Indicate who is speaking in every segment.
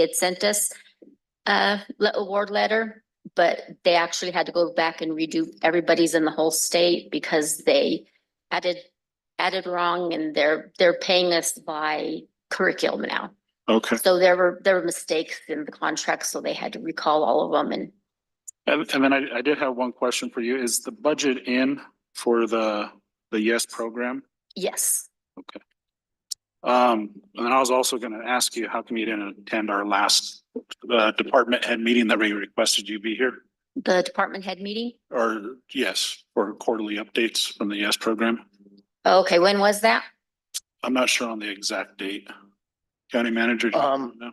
Speaker 1: had sent us a le- award letter, but they actually had to go back and redo everybody's in the whole state because they added, added wrong and they're, they're paying us by curriculum now.
Speaker 2: Okay,
Speaker 1: So there were, there were mistakes in the contract, so they had to recall all of them and
Speaker 2: and, and then I, I did have one question for you. Is the budget in for the, the YES program?
Speaker 1: yes.
Speaker 2: Um, and then I was also gonna ask you, how come you didn't attend our last, uh, department head meeting that we requested you be here?
Speaker 1: The department head meeting?
Speaker 2: Or, yes, for quarterly updates from the YES program?
Speaker 1: Okay, when was that?
Speaker 2: I'm not sure on the exact date. County manager? do you
Speaker 3: Um,
Speaker 2: know?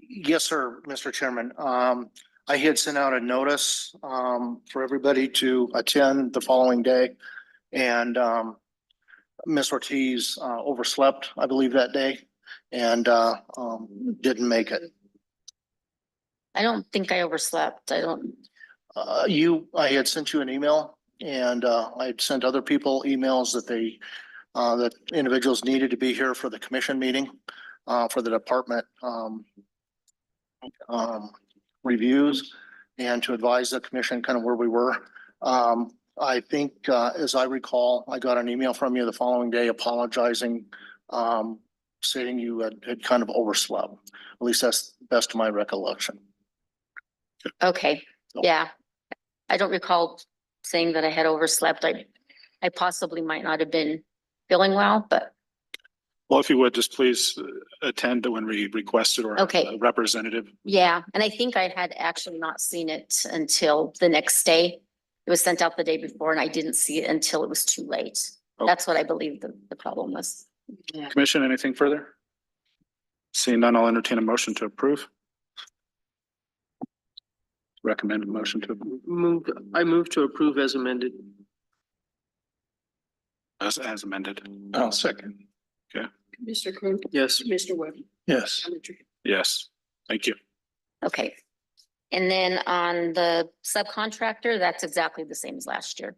Speaker 3: Yes, sir, Mr. Chairman. Um, I had sent out a notice, um, for everybody to attend the following day. And, um, Ms. Ortiz, uh, overslept, I believe, that day and, uh, um, didn't make it.
Speaker 1: I don't think I overslept. I don't,
Speaker 3: Uh, you, I had sent you an email and, uh, I had sent other people emails that they, uh, that individuals needed to be here for the commission meeting, uh, for the department, um, um, reviews and to advise the commission kind of where we were. Um, I think, uh, as I recall, I got an email from you the following day apologizing, um, stating you had, had kind of overslept. At least that's best of my recollection.
Speaker 1: okay,
Speaker 3: No.
Speaker 1: yeah. I don't recall saying that I had overslept. I, I possibly might not have been feeling well, but
Speaker 2: Well, if you would, just please uh, attend when we requested or. have
Speaker 1: Okay.
Speaker 2: a Representative.
Speaker 1: yeah. And I think I had actually not seen it until the next day. It was sent out the day before and I didn't see it until it was too late.
Speaker 2: Okay.
Speaker 1: That's what I believe the, the problem was.
Speaker 2: Commission, anything further? Seeing none, I'll entertain a motion to approve. Recommended motion to,
Speaker 4: Move, I move to approve as amended.
Speaker 2: as, as amended.
Speaker 3: I'll
Speaker 2: second.
Speaker 5: Mr. Coon,
Speaker 4: Yes.
Speaker 5: Mr. Webb.
Speaker 3: Yes.
Speaker 2: Yes, thank you.
Speaker 1: Okay. And then on the subcontractor, that's exactly the same as last year.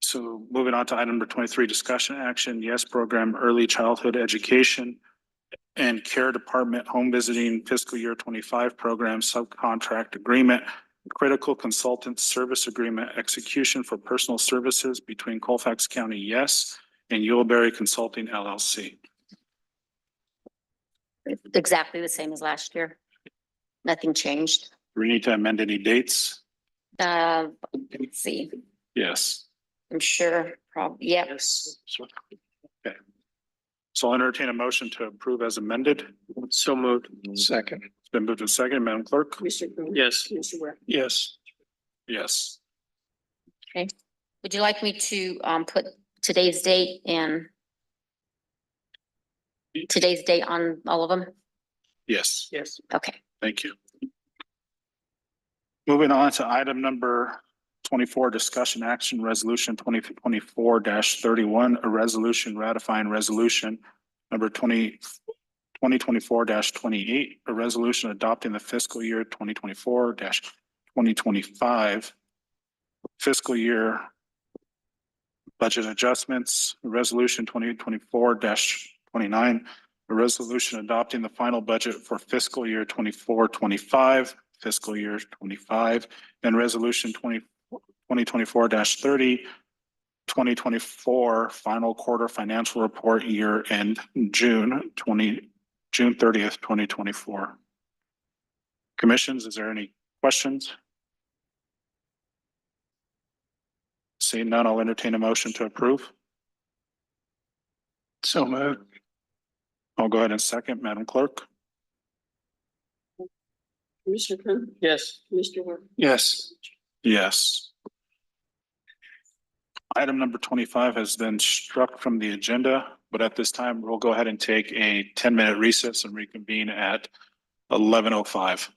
Speaker 2: So moving on to item number twenty-three, discussion action, yes, program early childhood education and care department home visiting fiscal year twenty-five program subcontract agreement, critical consultant service agreement execution for personal services between Colfax County, yes, and Yuleberry Consulting LLC.
Speaker 1: Exactly the same as last year. Nothing changed.
Speaker 2: Do we need to amend any dates?
Speaker 1: Uh, let's see,
Speaker 2: Yes.
Speaker 1: I'm sure, prob, yep.
Speaker 4: Yes.
Speaker 2: Okay. So I'll entertain a motion to approve as amended.
Speaker 4: So moved.
Speaker 2: Second. It's been moved and second, Madam Clerk?
Speaker 5: Mr. Coon.
Speaker 4: Yes.
Speaker 5: Mr. Webb.
Speaker 2: Yes. Yes.
Speaker 1: Would you like me to um put today's date and today's date on all of them?
Speaker 2: Yes.
Speaker 4: Yes.
Speaker 1: Okay,
Speaker 2: Thank you. Moving on to item number twenty-four, discussion action resolution twenty twenty-four thirty-one, a resolution ratifying resolution number 20 2024 twenty-eight, a resolution adopting the fiscal year twenty twenty-four twenty twenty-five fiscal year budget adjustments, resolution twenty twenty-four twenty-nine, a resolution adopting the final budget for fiscal year 24-25, fiscal year twenty-five, and resolution 20 2024 30 2024 final quarter financial report year end June twenty, June thirtieth, twenty twenty-four. Commissions, is there any questions? Seeing none, I'll entertain a motion to approve. So moved. I'll go ahead and second, Madam Clerk.
Speaker 5: Mr. Coon,
Speaker 4: Yes.
Speaker 5: Mr. Webb.
Speaker 2: Yes. Yes. Item number twenty-five has been struck from the agenda, but at this time, we'll go ahead and take a ten-minute recess and reconvene at eleven oh five.